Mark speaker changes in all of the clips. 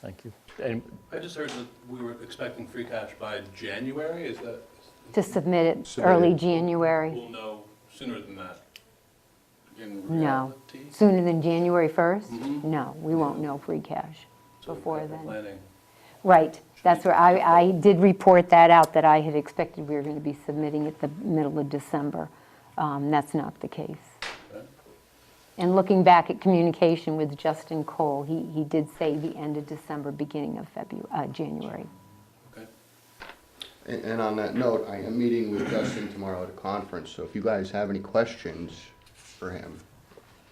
Speaker 1: Thank you. And
Speaker 2: I just heard that we were expecting free cash by January, is that,
Speaker 3: to submit it
Speaker 4: Submit
Speaker 3: early
Speaker 4: it.
Speaker 3: January.
Speaker 2: we'll know sooner than that? In
Speaker 3: No.
Speaker 2: reality?
Speaker 3: Sooner than January 1st?
Speaker 4: Mm-hmm.
Speaker 2: Mhm.
Speaker 3: No, we won't know free cash
Speaker 2: So
Speaker 3: before
Speaker 2: capital
Speaker 3: then.
Speaker 2: Planning.
Speaker 3: Right, that's where, I, I did report that out, that I had expected we were going to be submitting it the middle of December. Um, That's not the case.
Speaker 2: Okay.
Speaker 3: And looking back at communication with Justin Cole, he, he did say the end of December, beginning of February, uh, January.
Speaker 2: Okay.
Speaker 4: And, and on that note, I am meeting with Justin tomorrow at a conference, so if you guys have any questions for him,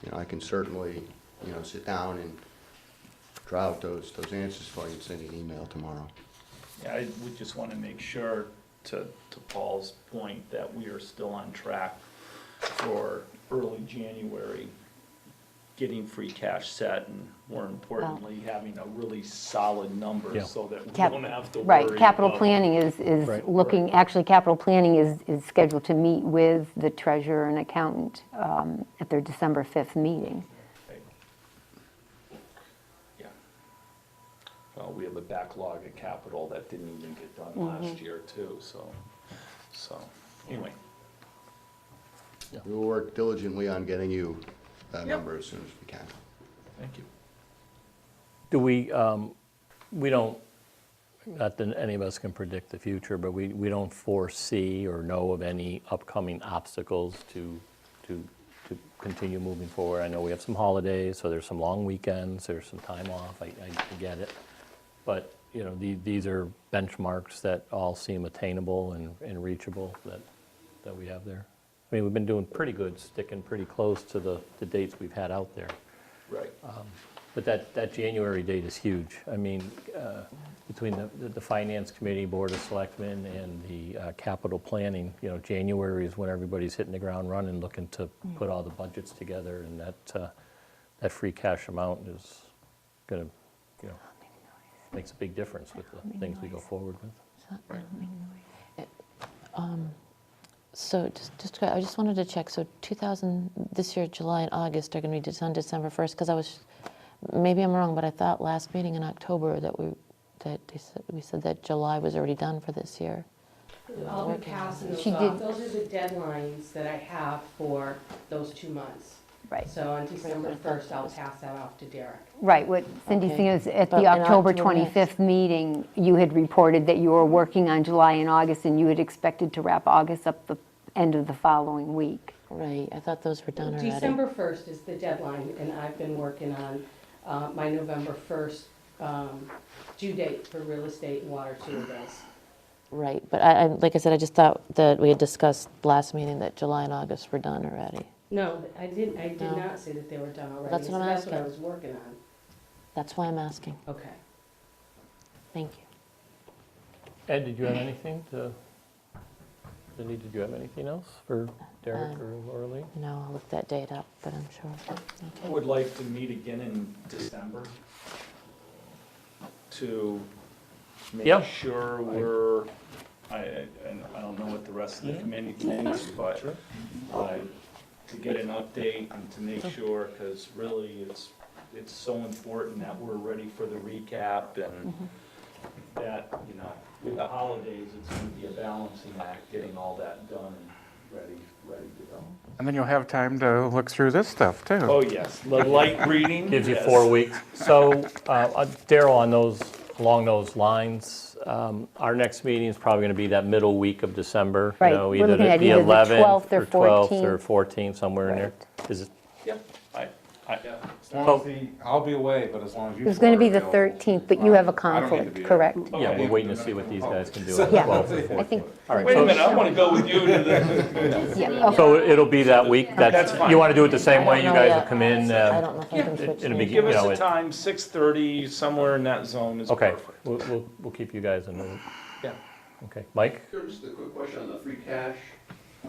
Speaker 4: you know, I can certainly, you know, sit down and draw out those, those answers for you and send you an email tomorrow.
Speaker 5: Yeah, I would just want to make sure, to, to Paul's point, that we are still on track for early January, getting free cash set, and more importantly, having a really solid number
Speaker 1: Yeah.
Speaker 5: so that we
Speaker 3: Cap-
Speaker 5: don't have to worry
Speaker 3: Right, capital
Speaker 5: about-
Speaker 3: planning is, is
Speaker 1: Right.
Speaker 3: looking, actually, capital planning is, is scheduled to meet with the treasurer and accountant um, at their December 5th meeting.
Speaker 5: Yeah. Well, we have a backlog of capital that didn't even get done
Speaker 3: Mm-hmm.
Speaker 5: last year too, so, so, anyway.
Speaker 4: We will work diligently on getting you that
Speaker 5: Yep.
Speaker 4: number as soon as we can.
Speaker 5: Thank you.
Speaker 1: do we, um, we don't, not that any of us can predict the future, but we, we don't foresee or know of any upcoming obstacles to, to, to continue moving forward. I know we have some holidays, so there's some long weekends, there's some time off, I, I get it. But, you know, the- these are benchmarks that all seem attainable and and reachable that, that we have there. I mean, we've been doing pretty good, sticking pretty close to the, the dates we've had out there.
Speaker 5: Right.
Speaker 1: But that, that January date is huge. I mean, uh, between the, the Finance Committee, Board of Selectmen, and the uh, capital planning, you know, January is when everybody's hitting the ground running, looking to put all the budgets together, and that, uh, that free cash amount is gonna, you know, makes a big difference with the things we go forward with.
Speaker 6: So just, just, to- I just wanted to check, so 2000, this year, July and August are going to be on December 1st, because I was, maybe I'm wrong, but I thought last meeting in October that we, that they said- we said that July was already done for this year.
Speaker 7: I'll be passing those
Speaker 3: She
Speaker 7: off.
Speaker 3: did-
Speaker 7: Those are the deadlines that I have for those two months.
Speaker 3: Right.
Speaker 7: So on December first, I'll pass that off to Derek.
Speaker 3: Right, what Cindy's
Speaker 6: Okay.
Speaker 3: saying is, at
Speaker 6: But
Speaker 3: the
Speaker 6: in
Speaker 3: October
Speaker 6: October next.
Speaker 3: 25th meeting, you had reported that you were working on July and August, and you had expected to wrap August up the end of the following week.
Speaker 6: Right, I thought those were done already.
Speaker 7: December first is the deadline, and I've been working on uh, my November first um, due date for real estate and water sewer bills.
Speaker 6: Right, but I, I- like I said, I just thought that we had discussed last meeting that July and August were done already.
Speaker 7: No, I didn't, I did
Speaker 6: No.
Speaker 7: not say that they were done already.
Speaker 6: That's what
Speaker 7: so
Speaker 6: I'm
Speaker 7: That's what I
Speaker 6: asking.
Speaker 7: was working on.
Speaker 6: That's why I'm asking.
Speaker 7: Okay.
Speaker 6: Thank you.
Speaker 1: Ed, did you have anything to, Cindy, did you have anything else for Derek
Speaker 6: Um,
Speaker 1: or Laura Lee?
Speaker 6: No, I'll look that date up, but I'm sure.
Speaker 5: I
Speaker 6: okay.
Speaker 5: would like to meet again in December to
Speaker 1: Yeah.
Speaker 5: make sure we're, I, I, and I don't know what the rest of the committee thinks, but uh, to get an update and to make sure, because really it's, it's so important that we're ready for the recap and
Speaker 1: Mm-hmm.
Speaker 5: that, you know, with the holidays, it's gonna be a balancing act, getting all that done and ready, ready to go.
Speaker 8: And then you'll have time to look through this stuff, too.
Speaker 5: Oh, yes, the light reading.
Speaker 1: Gives you
Speaker 5: yes.
Speaker 1: four weeks. So, uh, uh, Daryl, on those, along those lines, um, our next meeting is probably going to be that middle week of December. you
Speaker 3: Right,
Speaker 1: know,
Speaker 3: we're looking at either the
Speaker 1: 11th
Speaker 3: 12th or 14th.
Speaker 1: 12th or 14th, somewhere in there. Is it,
Speaker 5: Yeah, I, I,
Speaker 9: As long as the, I'll be away, but as long as you.
Speaker 3: It was going to
Speaker 9: four are
Speaker 3: be the
Speaker 9: available,
Speaker 3: 13th, but you have a
Speaker 9: I don't need to
Speaker 3: conflict,
Speaker 9: be there.
Speaker 3: correct?
Speaker 1: yeah, we're waiting to see what these guys can do on the
Speaker 3: Yeah.
Speaker 1: 12th or 14th.
Speaker 3: I think,
Speaker 1: All right,
Speaker 5: wait a
Speaker 1: so-
Speaker 5: minute, I want to go with you to the,
Speaker 3: yeah, okay.
Speaker 1: So it'll be that week, that's,
Speaker 5: That's fine.
Speaker 1: you want to do it the same way, you
Speaker 6: know
Speaker 1: guys
Speaker 6: yet.
Speaker 1: will come in.
Speaker 6: I
Speaker 1: um,
Speaker 6: don't know if I can
Speaker 5: Yeah,
Speaker 6: switch.
Speaker 1: it'll be
Speaker 6: meetings.
Speaker 5: give
Speaker 1: You know,
Speaker 5: us
Speaker 1: it-
Speaker 5: a time, 6:30, somewhere in that zone is
Speaker 1: Okay,
Speaker 5: perfect.
Speaker 1: we'll, we'll we'll keep you guys in the loop.
Speaker 5: Yeah.
Speaker 1: Okay, Mike?
Speaker 10: Sure, Just a quick question on the free cash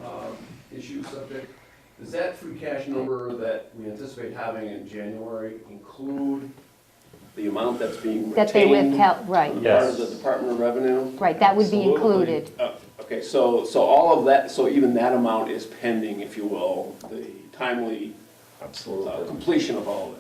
Speaker 10: um, issue subject. Does that free cash number that we anticipate having in January include the amount that's being retained?
Speaker 3: That they withheld, right,
Speaker 10: on the part
Speaker 1: Yes.
Speaker 10: of the Department of Revenue?
Speaker 3: right, that would be
Speaker 10: Absolutely.
Speaker 3: included.
Speaker 10: Uh, Okay, so, so all of that, so even that amount is pending, if you will, the timely uh,
Speaker 5: Absolutely.
Speaker 10: completion of all of it?